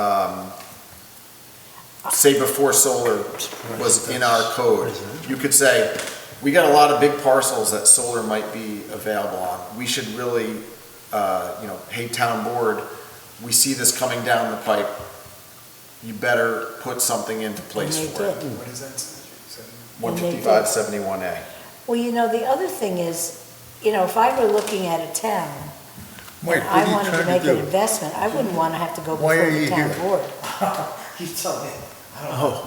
um, say before solar was in our code, you could say, we got a lot of big parcels that solar might be available on. We should really, uh, you know, hey, town board, we see this coming down the pipe. You better put something into place And they for it. didn't. What is that? Seven- One And they did. fifty-five seventy-one A. Well, you know, the other thing is, you know, if I were looking at a town, Mike, what I are you wanted to trying make to an do? investment, I wouldn't want to have to go Why before are the you town here? board. You tell me. I don't know.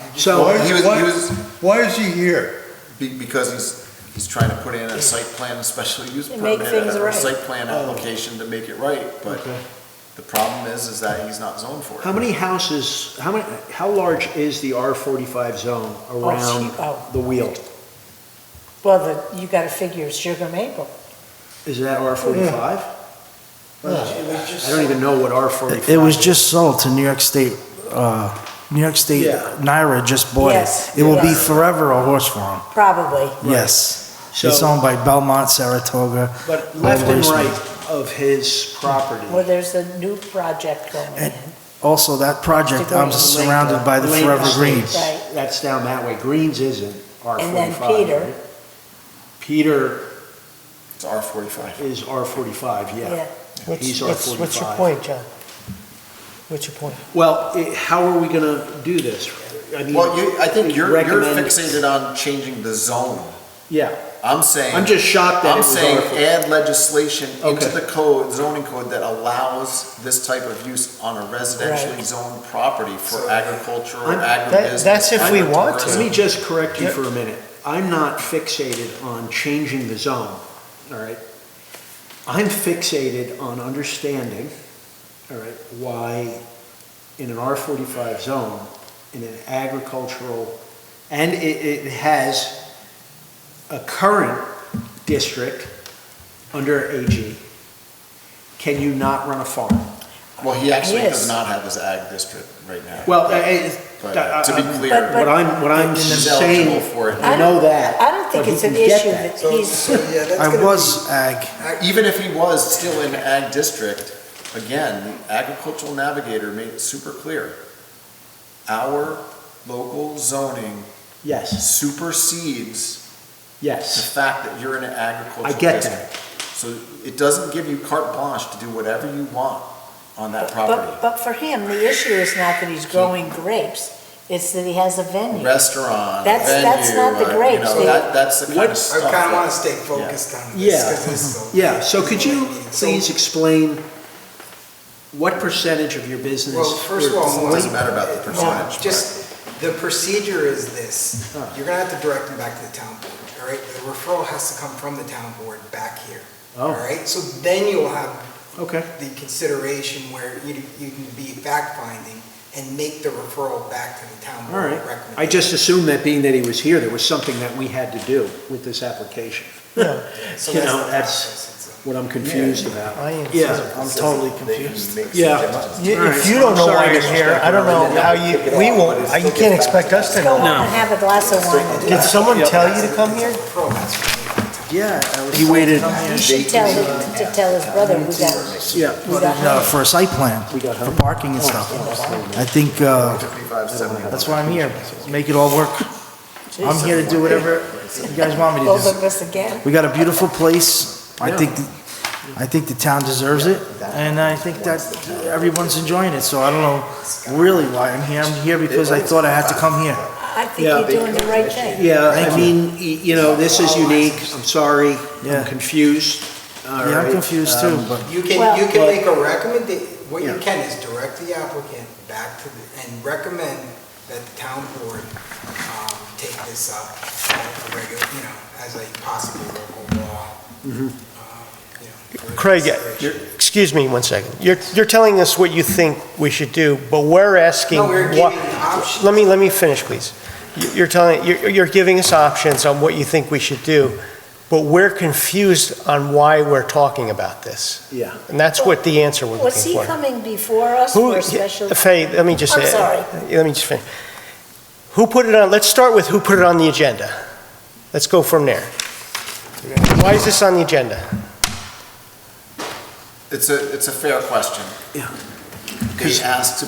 I'm just- So- Well, Why- He was, why- he was, Why is he here? be- because he's, he's trying to put in a site plan, special use And make permit, things or a right. site plan application to make it right, but the problem is, is that he's not zoned for it. How many houses, how many, how large is the R45 zone gee, oh. around the wheel? Well, the, you got to figure sugar maple. Is that R45? it was just I don't even know what R45 is. It was just sold to New York State, uh, New York State, Yeah. Naira just bought Yes, it. It will be yes. forever a horse farm, Probably. yes. So- It's owned by Belmont, Saratoga. But by left and Laceman. right of his property. Well, there's a new project going in. And- Also, that project, I'm surrounded uh, by the Lake Forever Green. Estates, Right. That's down that way. Greens isn't R45. And then Peter. right? Peter It's R forty-five. is R45, yeah. Yeah. He's What's, what's, what's your R45. point, John? What's your point? Well, it- how are we gonna do this? I mean, Well, you, I think you're, you're recommend- fixated on changing the zone. Yeah, I'm saying. I'm just shocked that it I'm was saying R45. add legislation into Okay. the code, zoning code that allows this type of use on a residentially zoned property for agriculture, I'm- agribusiness. that's if we want to. Let me just correct you Yep. for a minute. I'm not fixated on changing the zone, all right? I'm fixated on understanding, all right, why in an R forty-five zone, in an agricultural, and it, it has a current district under AG, can you not run a farm? Well, he actually Yes. does not have his ag district right now. Well, I- I- But uh, to be I- I- clear. What I'm, what I'm He's saying, eligible for it. I know that. I don't think but it's he an can get issue that. that so- he's, so, yeah, that's I gonna was ag, Even if he was still in ag district, again, the agricultural navigator made it super clear. Our local zoning Yes, supersedes the yes. fact that you're in an I agricultural get district. that. So it doesn't give you carte blanche to do whatever you want on that but, property. but for him, the issue is not that he's growing grapes, it's that he has a venue. Restaurant, That's- that's venue, not the uh, you grapes, know, they- that, that's the kind of I stuff. kinda wanna that- stay focused on this, Yeah. cause it's so. Yeah, so could you So- please explain what percentage of your business? Well, first of were- all, It doesn't matter about the No, percentage. but- just, the procedure is this, you're gonna have to direct them back to the town board, all right? The referral has to come from the town board back here, all Oh, right? So then you'll have okay, the consideration where you, you can be fact-finding and make the referral back to the town all board right. recommendation. I just assumed that being that he was here, there was something that we had to do with this application. So you that's know, the that's- process. It's a- What I'm confused about. I am, Yeah. too. I'm totally confused. Yeah. You- All right. If you don't know why Sorry. you're here, I don't know how you, we won't, uh, you can't expect us to Go know. on and have a glass of wine. Did someone tell you to come here? yeah. He waited, You should tell, him to tell his brother we got, Yeah. we got uh, for a site plan, got Oh, for parking and stuff. I think, uh, that's why I'm here, make it all work. I'm here to do whatever you guys want me to do. both of us again. We got a beautiful place. I think, I think the town deserves it, and I think that everyone's enjoying it, so I don't know really why I'm here. I'm here because I thought I had to come here. I think Yeah. you're doing the right thing. Yeah, Thank I you. mean, y- you know, this is unique, I'm sorry, Yeah. I'm confused. All Yeah, I'm right, confused too, um, but You can, Well- you can make a recommendation, what you Yeah. can is direct the applicant back to, the and recommend that the town board um, take this up at a regular, you know, as a possible local law. um, you know, for Mm-hmm. Craig, consideration. you're- excuse me one second. You're, you're telling us what you think we should do, but we're asking. No, we're why- giving options. Let me, let me finish, please. You- You're telling, you're, you're giving us options on what you think we should do, but we're confused on why we're talking about this. Yeah. And that's what the answer we're looking for. Was he coming before us Who- for a special? Faye, let me just I'm say. sorry. Let me just finish. Who put it on, let's start with who put it on the agenda. Let's go from there. Why is this on the agenda? It's a, it's a fair question. Yeah. They asked